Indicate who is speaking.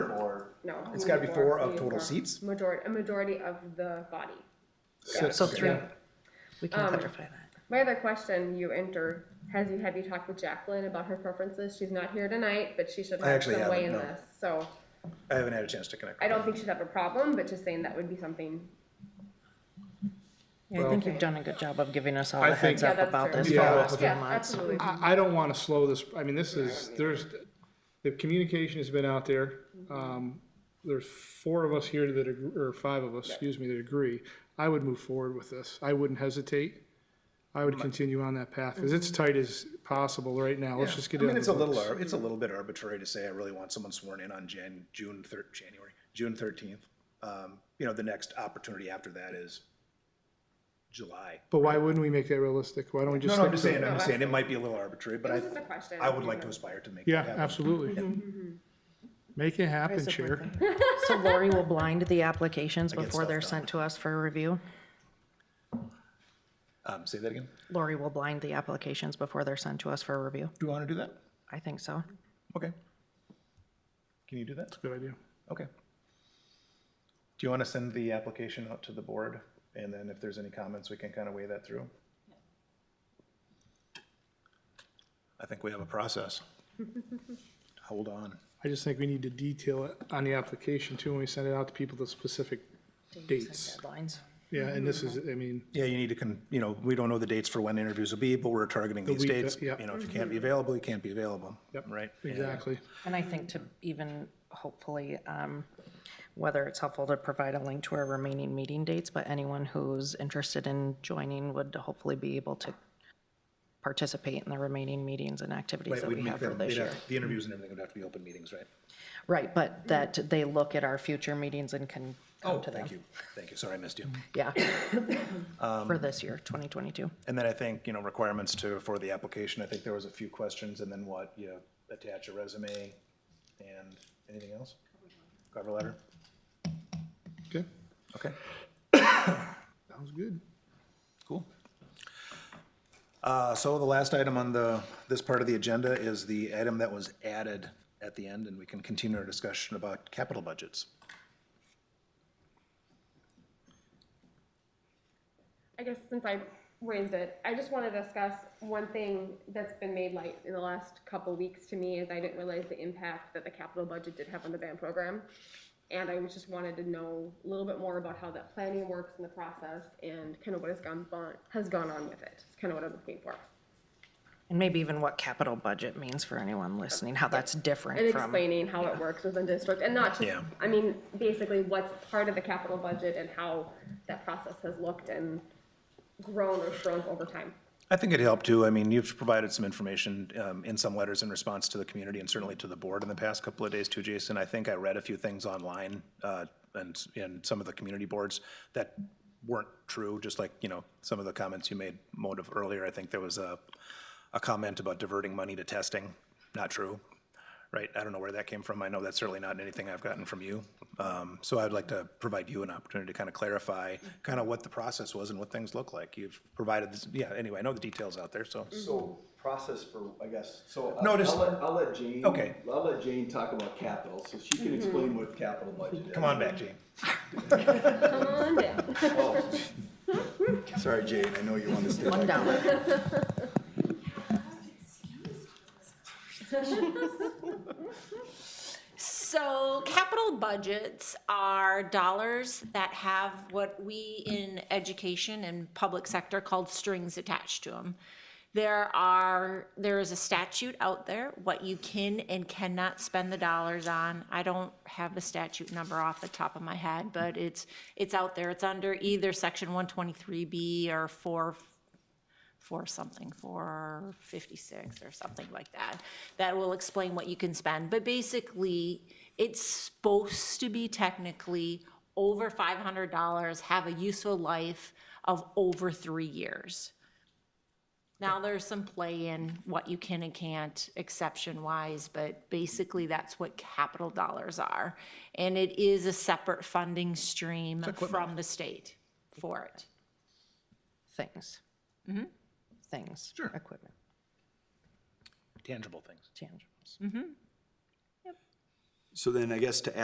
Speaker 1: no.
Speaker 2: It's gotta be
Speaker 1: we need
Speaker 2: four of
Speaker 1: we need
Speaker 2: total seats?
Speaker 1: Majority, a majority of the body.
Speaker 2: Got it,
Speaker 3: So
Speaker 2: okay.
Speaker 3: three,
Speaker 2: Yeah.
Speaker 3: we can
Speaker 1: Um,
Speaker 3: clarify that.
Speaker 1: My other question you enter, has you, have you talked with Jacqueline about her preferences? She's not here tonight, but she should
Speaker 2: I
Speaker 1: have
Speaker 2: actually
Speaker 1: some way in
Speaker 2: haven't, no.
Speaker 1: this. So
Speaker 2: I haven't had a chance to connect.
Speaker 1: I
Speaker 2: with
Speaker 1: don't
Speaker 2: her.
Speaker 1: think she'd have a problem, but just saying that would be something.
Speaker 3: Yeah, I think you've done a good job of giving us all
Speaker 4: I
Speaker 3: the
Speaker 4: think-
Speaker 3: heads
Speaker 1: Yeah,
Speaker 3: up
Speaker 1: that's
Speaker 3: about
Speaker 1: true.
Speaker 3: this for
Speaker 4: Yeah.
Speaker 3: the last few
Speaker 1: Yeah,
Speaker 3: months.
Speaker 1: absolutely.
Speaker 4: I, I don't want to slow this, I mean, this is, there's, the communication has been out there.
Speaker 2: Mm-hmm.
Speaker 4: Um, There's four of us here that, ag- or five of us, excuse me, that agree. I would move forward with this. I wouldn't hesitate. I would continue on that path, because it's tight as possible right now.
Speaker 2: Mm-hmm.
Speaker 4: Let's
Speaker 2: Yeah.
Speaker 4: just get
Speaker 2: I
Speaker 4: it
Speaker 2: mean,
Speaker 4: on
Speaker 2: it's a
Speaker 4: the
Speaker 2: little,
Speaker 4: books.
Speaker 2: ar- it's a little bit arbitrary to say I really want someone sworn in on Jan, June thir, January, June thirteenth. Um, you know, the next opportunity after that is July.
Speaker 4: But why wouldn't we make that realistic? Why don't we
Speaker 2: No,
Speaker 4: just?
Speaker 2: no, I'm
Speaker 4: stick
Speaker 2: just
Speaker 4: to it?
Speaker 2: saying, I'm just saying, it might be a little arbitrary, but
Speaker 1: Oh, It
Speaker 2: I,
Speaker 1: was just a question.
Speaker 2: I would like to aspire to make
Speaker 4: Yeah,
Speaker 2: that happen.
Speaker 4: absolutely. Make it happen, Chair.
Speaker 3: So Lori will blind the applications
Speaker 2: get
Speaker 3: before
Speaker 2: stuff
Speaker 3: they're
Speaker 2: done.
Speaker 3: sent to us for review?
Speaker 2: Um, say that again.
Speaker 3: Lori will blind the applications before they're sent to us for review?
Speaker 2: Do you want to do that?
Speaker 3: I think so.
Speaker 2: Okay. Can you do that?
Speaker 4: Good idea.
Speaker 2: Okay. Do you want to send the application out to the board? And then if there's any comments, we can kind of weigh that through? I think we have a process. Hold on.
Speaker 4: I just think we need to detail it on the application too, when we send it out to people, the specific dates.
Speaker 3: Deadlines.
Speaker 4: Yeah, and this is, I mean,
Speaker 2: Yeah, you need to, con- you know, we don't know the dates for when interviews will be, but we're targeting these
Speaker 4: week, uh,
Speaker 2: dates.
Speaker 4: yeah.
Speaker 2: You know, if you can't be available, you can't be available.
Speaker 4: Yep.
Speaker 2: Right?
Speaker 4: exactly.
Speaker 3: And I think to even hopefully, um, whether it's helpful to provide a link to our remaining meeting dates, but anyone who's interested in joining would hopefully be able to participate in the remaining meetings and activities
Speaker 2: Right,
Speaker 3: that
Speaker 2: we'd
Speaker 3: we
Speaker 2: make
Speaker 3: have for
Speaker 2: them-
Speaker 3: this
Speaker 2: they'd
Speaker 3: year.
Speaker 2: have- The interviews and everything would have to be open meetings, right?
Speaker 3: Right, but that they look at our future meetings and can come to them.
Speaker 2: Oh, Thank you. Um, Thank you. Sorry, I missed you.
Speaker 3: Yeah. For this year, 2022.
Speaker 2: And then I think, you know, requirements to, for the application, I think there was a few questions, and then what, you attach a resume and anything else? Cover letter?
Speaker 4: Okay,
Speaker 2: Okay,
Speaker 4: sounds good.
Speaker 2: cool. Uh, so the last item on the, this part of the agenda is the item that was added at the end, and we can continue our discussion about capital budgets.
Speaker 1: I guess since I raised it, I just want to discuss one thing that's been made light in the last couple weeks to me is I didn't realize the impact that the capital budget did have on the band program. And I was just wanted to know a little bit more about how that planning works in the process and kind of what has gone, on- has gone on with it. It's kind of what I'm looking for.
Speaker 3: And maybe even what capital budget means for anyone listening, how that's
Speaker 1: And
Speaker 3: different from.
Speaker 1: explaining how it works within district and not just,
Speaker 2: Yeah.
Speaker 1: I mean, basically what's part of the capital budget and how that process has looked and grown or shrunk over time.
Speaker 2: I think it helped too. I mean, you've provided some information um, in some letters in response to the community and certainly to the board in the past couple of days too, Jason. I think I read a few things online uh, and in some of the community boards that weren't true, just like, you know, some of the comments you made, Motive, earlier. I think there was a, a comment about diverting money to testing. Not true, right? I don't know where that came from. I know that's certainly not anything I've gotten from you. Um, So I'd like to provide you an opportunity to kind of clarify kind of what the process was and what things look like. You've provided, this yeah, anyway, I know the details out there, so.
Speaker 5: So process for, I guess, so. I-
Speaker 2: No, just-
Speaker 5: I'll let, I'll let Jane.
Speaker 2: Okay.
Speaker 5: I'll let Jane talk about capital, so she can explain what capital budget is.
Speaker 2: Come on back, Gene.
Speaker 1: Come on down.
Speaker 5: Oh. Sorry, Jane, I know you want to stay back.
Speaker 3: One dollar.
Speaker 6: So capital budgets are dollars that have what we in education and public sector called strings attached to them. There are, there is a statute out there, what you can and cannot spend the dollars on. I don't have the statute number off the top of my head, but it's, it's out there. It's under either section one twenty-three B or four for something, for 56 or something like that, that will explain what you can spend. But basically, it's supposed to be technically over $500, have a useful life of over three years. Now, there's some play in what you can and can't exception-wise, but basically, that's what capital dollars are. And it is a separate funding stream from the state for it.
Speaker 3: Things. Things. Equipment,
Speaker 2: Tangible things.
Speaker 3: tangibles.
Speaker 5: So then I guess to